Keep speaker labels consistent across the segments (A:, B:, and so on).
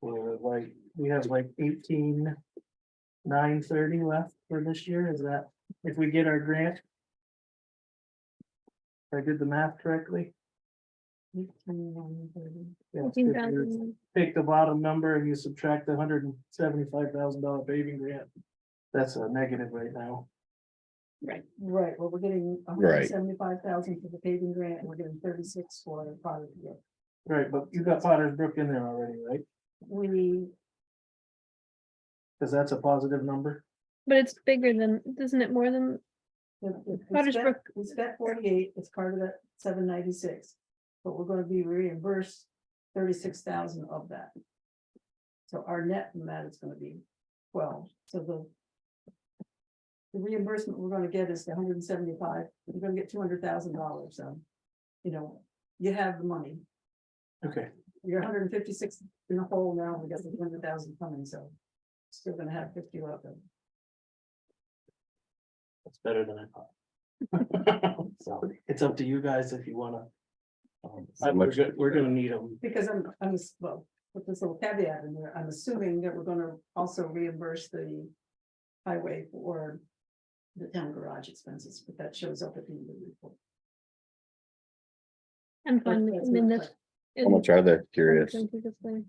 A: we're like, we have like eighteen nine thirty left for this year, is that, if we get our grant? If I did the math correctly. Yeah, if
B: Fifteen
A: you
B: thousand,
A: Take the bottom number and you subtract the hundred and seventy-five thousand dollar paving grant, that's a negative right now.
B: Right,
C: Right, well, we're getting
D: Right.
C: seventy-five thousand for the paving grant, and we're getting thirty-six for the product. grant.
A: Right, but you got Potter's Brook in there already, right?
C: We,
A: Cause that's a positive number.
B: but it's bigger than, isn't it more than,
C: if- if we
B: Potter's
C: spent-
B: Brook.
C: we spent forty-eight, it's part of that seven ninety-six, but we're gonna be reimbursed thirty-six thousand of that. So our net from that is gonna be twelve, so the the reimbursement we're gonna get is the hundred and seventy-five, we're gonna get two hundred thousand dollars, so, you know, you have the money.
A: Okay,
C: You're hundred and fifty-six in the hole now, we got the hundred thousand coming, so. Still gonna have fifty left.
A: that's better than I thought. So it's up to you guys if you wanna. um,
D: How
A: We're
D: much-
A: go- we're gonna need them.
C: Because I'm, I'm, ass- well, with this little caveat in there, I'm assuming that we're gonna also reimburse the. Highway for the town garage expenses, but that shows up at the end of the report.
B: I'm fine, with- I mean, that's. it-
D: much are they? Curious.
B: I think it's fine.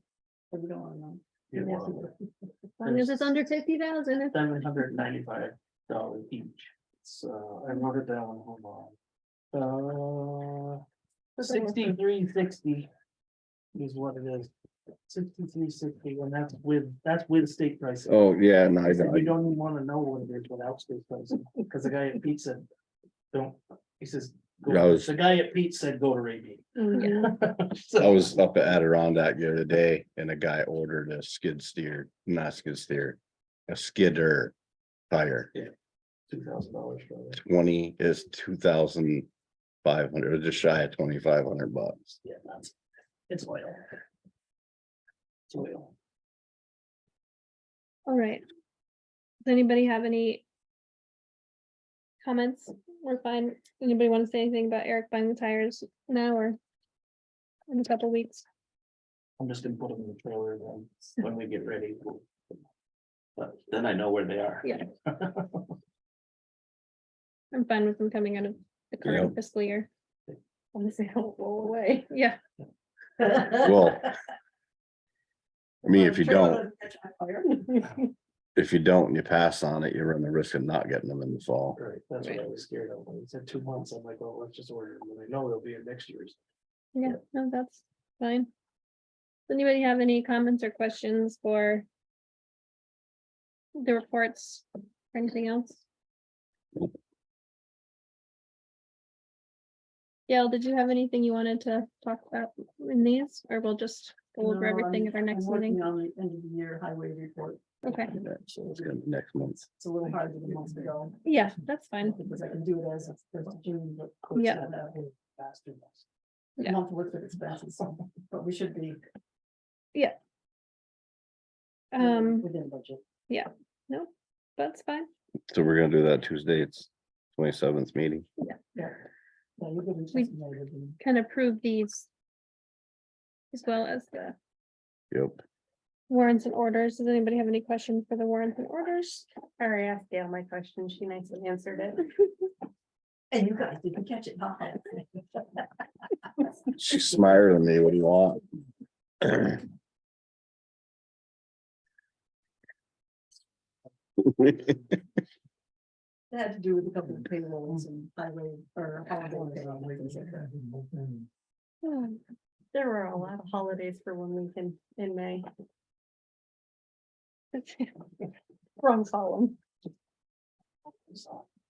C: But we don't wanna know.
A: Yeah,
C: Yes.
B: As long as it's under fifty thousand, it's
A: Seven hundred ninety-five dollars each. So I wrote it down, hold on. Uh, sixty-three sixty is what it is. Sixty-three sixty, and that's with, that's with state pricing.
D: Oh, yeah, no, I
A: I said,
D: know.
A: You don't even wanna know what it is without state pricing, because the guy at Pete said, don't, he says. go-
D: Yeah, I was-
A: The guy at Pete said, go to Ray Beach."
B: Mm, Yeah.
A: So-
D: I was up at Adirondack the other day and a guy ordered a skid steer, not skid steer, a skidder tire.
A: Two thousand dollars for that.
D: Twenty is two thousand five hundred, or just shy of twenty-five hundred bucks.
A: Yeah, that's, it's oil. It's oil.
B: all right. Does anybody have any? Comments? We're fine. Anybody want to say anything about Eric buying the tires now or? In a couple weeks?
A: I'm just gonna put them in the trailer then, when we get ready. we'll- But then I know where they are.
B: Yeah. I'm fine with them coming out of the current fiscal year.
E: Unless they don't roll away.
B: Yeah,
D: Well, I mean, if you don't, if you don't and you pass on it, you run the risk of not getting them in the fall.
A: Right, that's what I was scared of, when he said two months, I'm like, well, let's just order them, and I know they'll be in next year's.
B: yeah, no, that's fine. Does Anybody have any comments or questions for? The reports or anything else? Gail, did you have anything you wanted to talk about in these, or we'll just go over everything at our next meeting?
C: On the end of the year highway report,
B: Okay,
D: Yeah, So it's gonna be next month.
C: it's a little hard to get months ago.
B: yeah, that's fine.
C: Because I can do it as of first of June, but. of course,
B: Yeah.
C: I have a faster month.
B: Yeah.
C: Month worth of expenses, but we should be. you know,
B: Um,
C: Within budget.
B: that's fine.
D: So we're gonna do that Tuesday. It's twenty-seventh meeting.
C: Yeah. Yeah, you're getting
B: We-
C: something later than-
B: Can approve these. As well as the
D: Yep.
B: warrants and orders. Does anybody have any questions for the warrants and orders?
E: I already asked Gail my question. She nicely answered it.
C: And you guys didn't catch it, huh?
D: She's smarter than me. What do you want?
C: It had to do with a couple of payrolls and highway or. holiday payroll and things Hmm. like that.
E: Um, There were a lot of holidays for one week in, in May. Wrong column.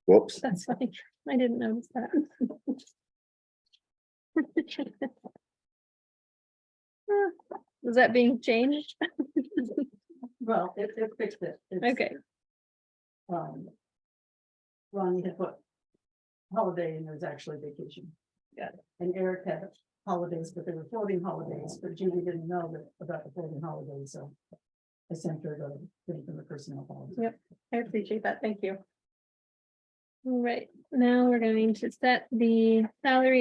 D: Whoops.
B: That's funny. I didn't notice that. Ah, Is that being changed?
C: Well, it, it fixed it. It's,
B: Okay,
C: um, Ronnie had put holiday and there's actually vacation.
B: Got
C: And Eric had holidays, but they were floating holidays, but Judy didn't know that about the floating holidays, so. I sent her the, thing from the personnel policy.
E: Yep. I appreciate that. Thank you.
B: All right. Now we're going to set the salary